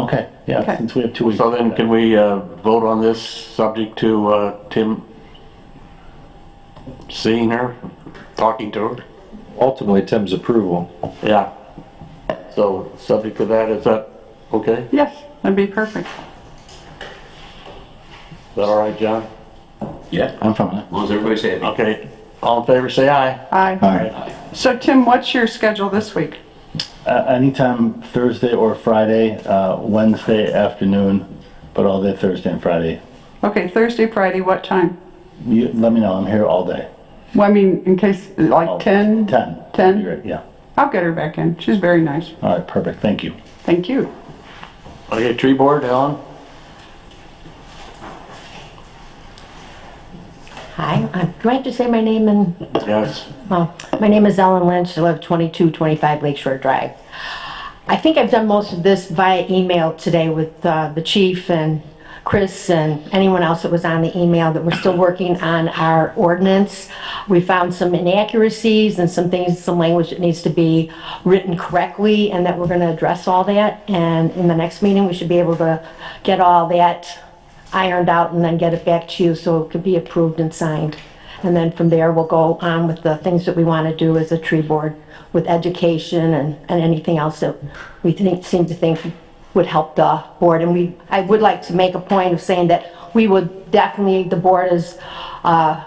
Okay, yeah, Okay. since we have two weeks. So then can we uh, vote on this subject to uh, Tim seeing her, talking to her? Ultimately, Tim's approval. Yeah. So subject to that, is that okay? Is Yes, that'd be perfect. that all right, John? Yeah, as I'm from it. long as everybody's happy. Okay, all in favor, say aye. All Aye. right, So Tim, what's your schedule this week? Uh, anytime Thursday or Friday, uh, Wednesday afternoon, but all day Thursday and Friday. Okay, Thursday, Friday, what time? You, let me know, I'm here all day. Well, I mean, in case, like Oh, 10? 10. 10? Yeah, I'll get her back in. She's very nice. all right, perfect, thank you. Thank you. Okay, tree board, Helen? Hi, uh, do I have to say my name and, Yes. well, my name is Ellen Lynch, I live 2225 Lakeshore Drive. I think I've done most of this via email today with uh, the chief and Chris and anyone else that was on the email that we're still working on our ordinance. We found some inaccuracies and some things, some language that needs to be written correctly and that we're going to address all that. And in the next meeting, we should be able to get all that ironed out and then get it back to you so it could be approved and signed. And then from there, we'll go on with the things that we want to do as a tree board with education and, and anything else that we think, seem to think would help the board. And we, I would like to make a point of saying that we would definitely, the board is, uh,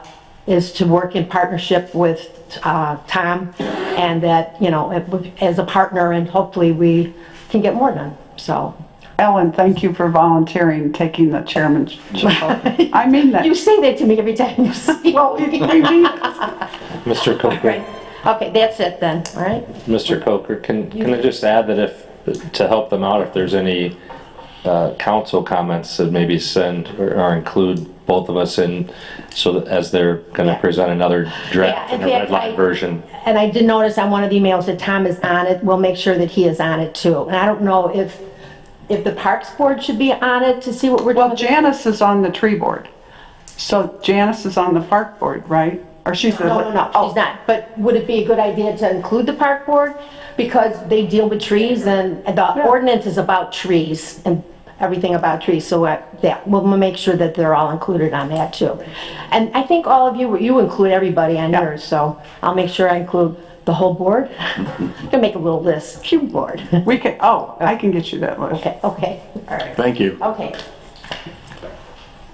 is to work in partnership with, uh, Tom and that, you know, as a partner and hopefully we can get more done. So Ellen, thank you for volunteering, taking the chairman's. I mean that. you say that to me every time you speak. Well, we we need, Mr. Coker, Okay, that's it then, all right? Mr. Coker, can, can I just add that if, to help them out, if there's any uh, council comments that maybe send or or include both of us in, so that as they're going to Yeah. present another draft Yeah, in and a red fact, line I- version? And I did notice on one of the emails that Tom is on it, we'll make sure that he is on it too. And I don't know if, if the Parks Board should be on it to see what we're doing. well, Janice is on the tree board. So Janice is on the park board, right? Or she's the. No, no, no, she's not, but would it be a good idea to include the Park Board? Because they deal with trees and the ordinance is about trees and everything about trees, so uh, yeah, we'll make sure that they're all included on that too. And I think all of you, you include everybody on yours, so I'll make sure I include the whole board. Gonna make a little list, cube board. We can, oh, I can get you that list. Okay, okay, all right, Thank you. okay.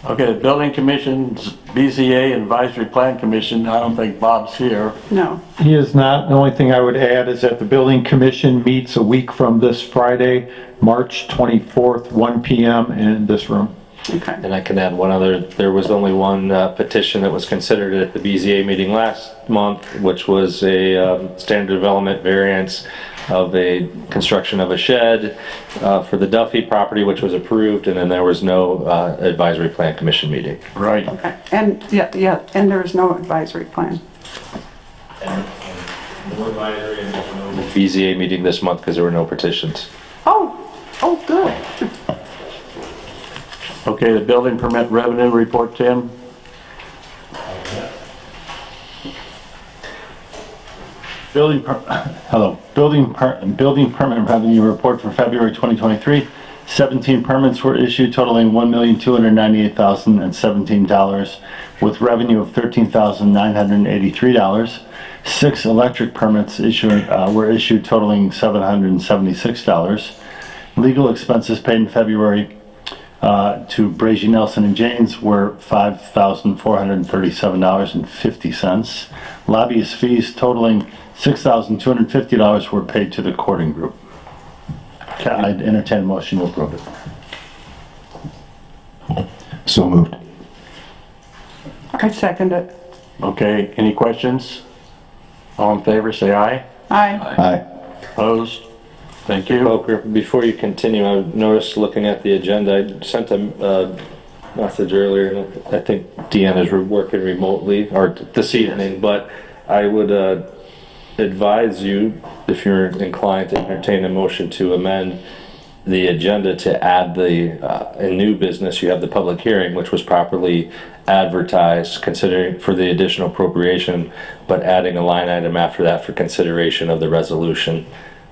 Okay, the Building Commission, BZA Advisory Plan Commission, I don't think Bob's here. No. He is not. The only thing I would add is that the building commission meets a week from this Friday, March 24th, 1 PM in this room. Okay. And I can add one other, there was only one uh, petition that was considered at the BZA meeting last month, which was a um, standard development variance of a construction of a shed uh, for the Duffy property, which was approved, and then there was no uh, advisory plan commission meeting. Right. Okay. And, yeah, yeah, and there is no advisory plan. BZA meeting this month because there were no petitions. Oh, oh, good. Okay, the building permit revenue report, Tim? Building, per- hello, building, per- building permit revenue report for February 2023. 17 permits were issued totaling $1,298,017 with revenue of $13,983. Six electric permits issued, uh, were issued totaling $776. Legal expenses paid in February uh, to Brazy Nelson and Janes were $5,437.50. Lobbyist fees totaling $6,250 were paid to the courting group. I'd entertain a motion to approve it. So moved. I second it. Okay, any questions? All in favor, say aye. Aye. Aye. Opposed? Thank you. Poker, before you continue, I noticed looking at the agenda, I sent a uh, message earlier, and I think Deanna's re- working remotely, or t- this evening, but I would uh, advise you, if you're inclined to entertain a motion to amend the agenda to add the, uh, in new business, you have the public hearing, which was properly advertised, considering for the additional appropriation, but adding a line item after that for consideration of the resolution.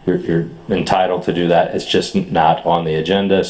You're, you're entitled to do that. It's just not on the agenda,